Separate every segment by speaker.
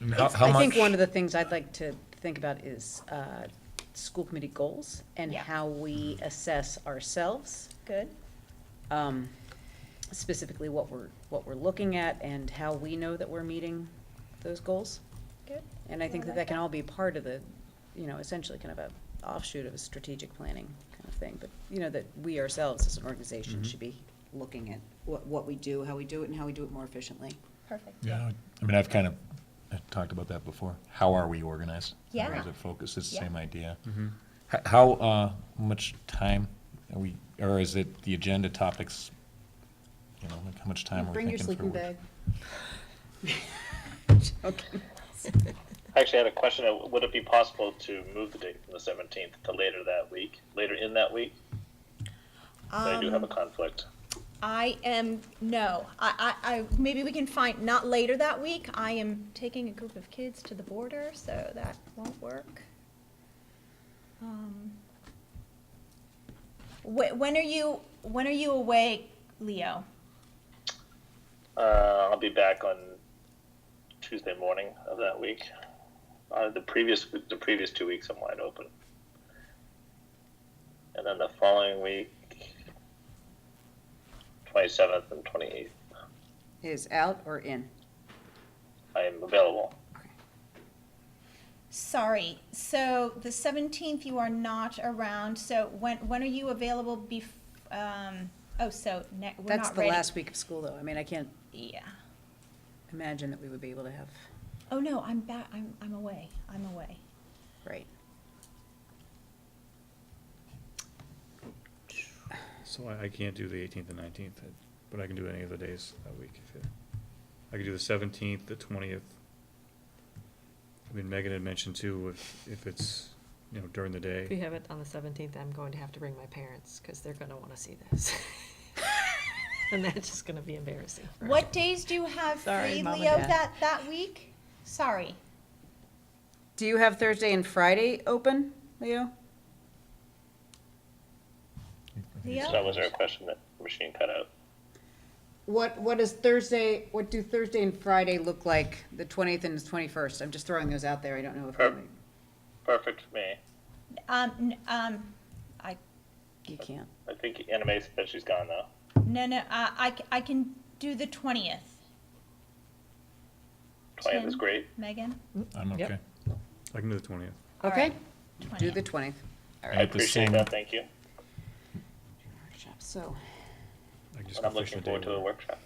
Speaker 1: And how,
Speaker 2: It's-
Speaker 1: how
Speaker 2: I
Speaker 1: much?
Speaker 2: think one of the things I'd like to think about is uh, school committee goals and
Speaker 3: Yeah.
Speaker 2: how we assess ourselves,
Speaker 3: Good.
Speaker 2: um, specifically what we're, what we're looking at and how we know that we're meeting those goals.
Speaker 3: Good.
Speaker 2: And I think that
Speaker 3: I like
Speaker 2: that can
Speaker 3: that.
Speaker 2: all be part of the, you know, essentially kind of a offshoot of a strategic planning kind of thing. But, you know, that we ourselves as an organization
Speaker 1: Mhm.
Speaker 2: should be looking at what, what we do, how we do it, and how we do it more efficiently.
Speaker 3: Perfect.
Speaker 1: Yeah, I mean, I've kind of I've talked about that before. How are we organized?
Speaker 3: Yeah.
Speaker 1: Where is it focused? It's the
Speaker 3: Yeah.
Speaker 1: same idea. H- How, uh, much time are we, or is it the agenda topics? You know, like how much time we're
Speaker 2: Bring your
Speaker 1: thinking for?
Speaker 2: sleeping
Speaker 1: work-
Speaker 2: bag. Joking.
Speaker 4: I actually had a question. Uh, Would it be possible to move the date from the 17th to later that week, later in that week? I do have a conflict.
Speaker 3: I am, no, I, I, I, maybe we can find, not later that week, I am taking a group of kids to the border, so that won't work. Um, Wh- when are you, when are you away, Leo?
Speaker 4: Uh, I'll be back on Tuesday morning of that week. Uh, the previous the previous two weeks I'm wide open, and then the following week, 27th and 28th,
Speaker 2: Is out or in?
Speaker 4: I am available.
Speaker 3: Sorry, so the seventeenth you are not around, so when, when are you available bef- um, oh, so ne- we're
Speaker 2: That's
Speaker 3: not
Speaker 2: the
Speaker 3: ready.
Speaker 2: last week of school, though. I mean, I can't
Speaker 3: Yeah.
Speaker 2: imagine that we would be able to have,
Speaker 3: Oh, no, I'm back, I'm, I'm away, I'm away.
Speaker 2: right.
Speaker 5: So I, I can't do the eighteenth and nineteenth, but I can do any of the days that week if you, I could do the seventeenth, the twentieth. I mean, Megan had mentioned too, if, if it's, you know, during the
Speaker 6: If we
Speaker 5: day,
Speaker 6: have it on the seventeenth, I'm going to have to bring my parents, because they're gonna wanna see this. And that's just gonna be embarrassing. for
Speaker 3: What days do you have
Speaker 2: Sorry,
Speaker 3: free,
Speaker 2: Mom and
Speaker 3: Leo,
Speaker 2: Dad.
Speaker 3: that, that week? Sorry.
Speaker 2: Do you have Thursday and Friday open, Leo?
Speaker 4: So
Speaker 3: Leo?
Speaker 4: that was our question that the machine cut out.
Speaker 2: What, what is Thursday, what do Thursday and Friday look like, the 20th and the 21st? I'm just throwing those out there. I don't know if.
Speaker 4: Sure. Perfect for me.
Speaker 3: Um, n- um, I,
Speaker 2: You can't.
Speaker 4: I think anime said she's gone though.
Speaker 3: no, no, I, I c- I can do the twentieth.
Speaker 4: 20th is
Speaker 3: Ten.
Speaker 4: great.
Speaker 3: Megan?
Speaker 1: I'm
Speaker 6: Yep.
Speaker 1: okay.
Speaker 5: I can do the twentieth.
Speaker 3: All
Speaker 2: Okay,
Speaker 3: right,
Speaker 2: do
Speaker 3: 20th.
Speaker 2: the 20th. All
Speaker 4: I
Speaker 1: right. At the
Speaker 4: appreciate
Speaker 1: same-
Speaker 4: that. Thank you.
Speaker 2: Workshop, So,
Speaker 5: I can just
Speaker 4: And I'm
Speaker 5: go fish
Speaker 4: looking
Speaker 5: a day
Speaker 4: forward to
Speaker 5: with
Speaker 4: the
Speaker 5: it.
Speaker 4: workshop.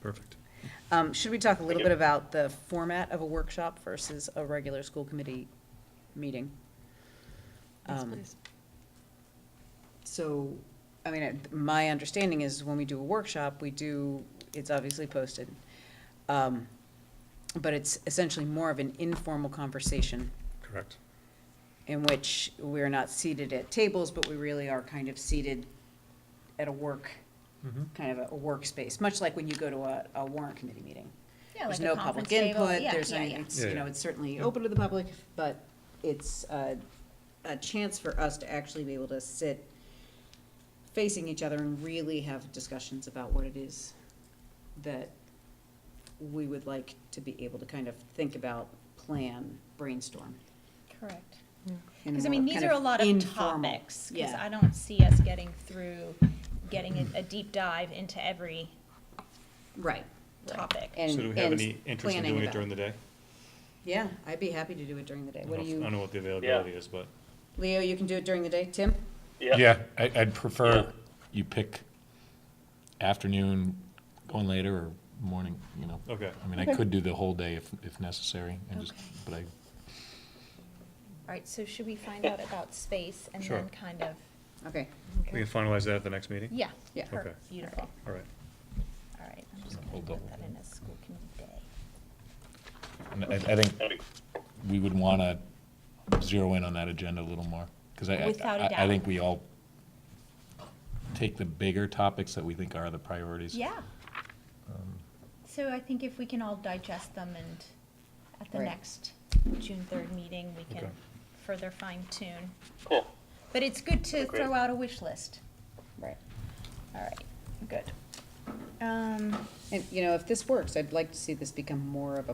Speaker 5: Perfect.
Speaker 2: um, should we talk a little bit about the format of a workshop versus a regular school committee meeting?
Speaker 6: Yes,
Speaker 2: Um,
Speaker 6: please.
Speaker 2: So, I mean, I- my understanding is when we do a workshop, we do, it's obviously posted. um, But it's essentially more of an informal conversation
Speaker 5: Correct.
Speaker 2: in which we're not seated at tables, but we really are kind of seated at a work,
Speaker 5: Mm-hmm.
Speaker 2: kind of a- a workspace, much like when you go to a, a warrant committee meeting.
Speaker 3: Yeah,
Speaker 2: There's
Speaker 3: like a
Speaker 2: no public
Speaker 3: conference table.
Speaker 2: input,
Speaker 3: Yeah,
Speaker 2: there's,
Speaker 3: yeah,
Speaker 2: no-
Speaker 3: yeah.
Speaker 2: it's,
Speaker 5: Yeah,
Speaker 2: you know,
Speaker 5: yeah.
Speaker 2: it's certainly open to the public, but it's a, a chance for us to actually be able to sit facing each other and really have discussions about what it is that we would like to be able to kind of think about, plan, brainstorm.
Speaker 3: Correct.
Speaker 2: in a
Speaker 3: Because I mean,
Speaker 2: more
Speaker 3: these
Speaker 2: kind
Speaker 3: are a lot of
Speaker 2: informal-
Speaker 3: topics, because
Speaker 2: Yeah.
Speaker 3: I don't see us getting through, getting a, a deep dive into every
Speaker 2: Right.
Speaker 3: topic.
Speaker 2: And-
Speaker 5: So do we have
Speaker 2: and
Speaker 5: any interest in
Speaker 2: planning
Speaker 5: doing it
Speaker 2: about-
Speaker 5: during the day?
Speaker 2: Yeah, I'd be happy to do it during the day.
Speaker 5: I
Speaker 2: What do
Speaker 5: don't know if- I
Speaker 2: you,
Speaker 5: don't know what the availability is, but
Speaker 2: Leo, you can do it during the day? Tim?
Speaker 1: Yeah, I, I'd prefer you pick afternoon, going later, or morning, you know.
Speaker 5: Okay.
Speaker 1: I mean, I could do the whole day if, if necessary, and just,
Speaker 3: Okay.
Speaker 1: but I,
Speaker 3: All right, so should we find out about space and
Speaker 5: Sure.
Speaker 3: then kind of,
Speaker 2: Okay.
Speaker 6: Okay.
Speaker 5: we can finalize that at the next meeting?
Speaker 3: yeah.
Speaker 2: Yeah.
Speaker 3: per-
Speaker 5: Okay.
Speaker 3: Beautiful.
Speaker 5: All right.
Speaker 3: All right, I'm just
Speaker 1: Hold
Speaker 3: gonna
Speaker 1: on.
Speaker 3: put that in as school committee day.
Speaker 1: and I, I think
Speaker 4: That'd be
Speaker 1: we would want to zero in on that agenda a little more. Because I,
Speaker 3: Without
Speaker 1: I-
Speaker 3: a
Speaker 1: I, I
Speaker 3: doubt.
Speaker 1: think we all take the bigger topics that we think are the priorities.
Speaker 3: Yeah.
Speaker 2: Um,
Speaker 3: So I think if we can all digest them and at the
Speaker 2: Right.
Speaker 3: next June third meeting, we can
Speaker 5: Okay.
Speaker 3: further fine tune.
Speaker 4: Cool.
Speaker 3: But it's good to
Speaker 4: Agreed.
Speaker 3: throw out a wish list.
Speaker 2: Right.
Speaker 3: All right, good. Um,
Speaker 2: Um, And, you know, if this works, I'd like to see this become more of a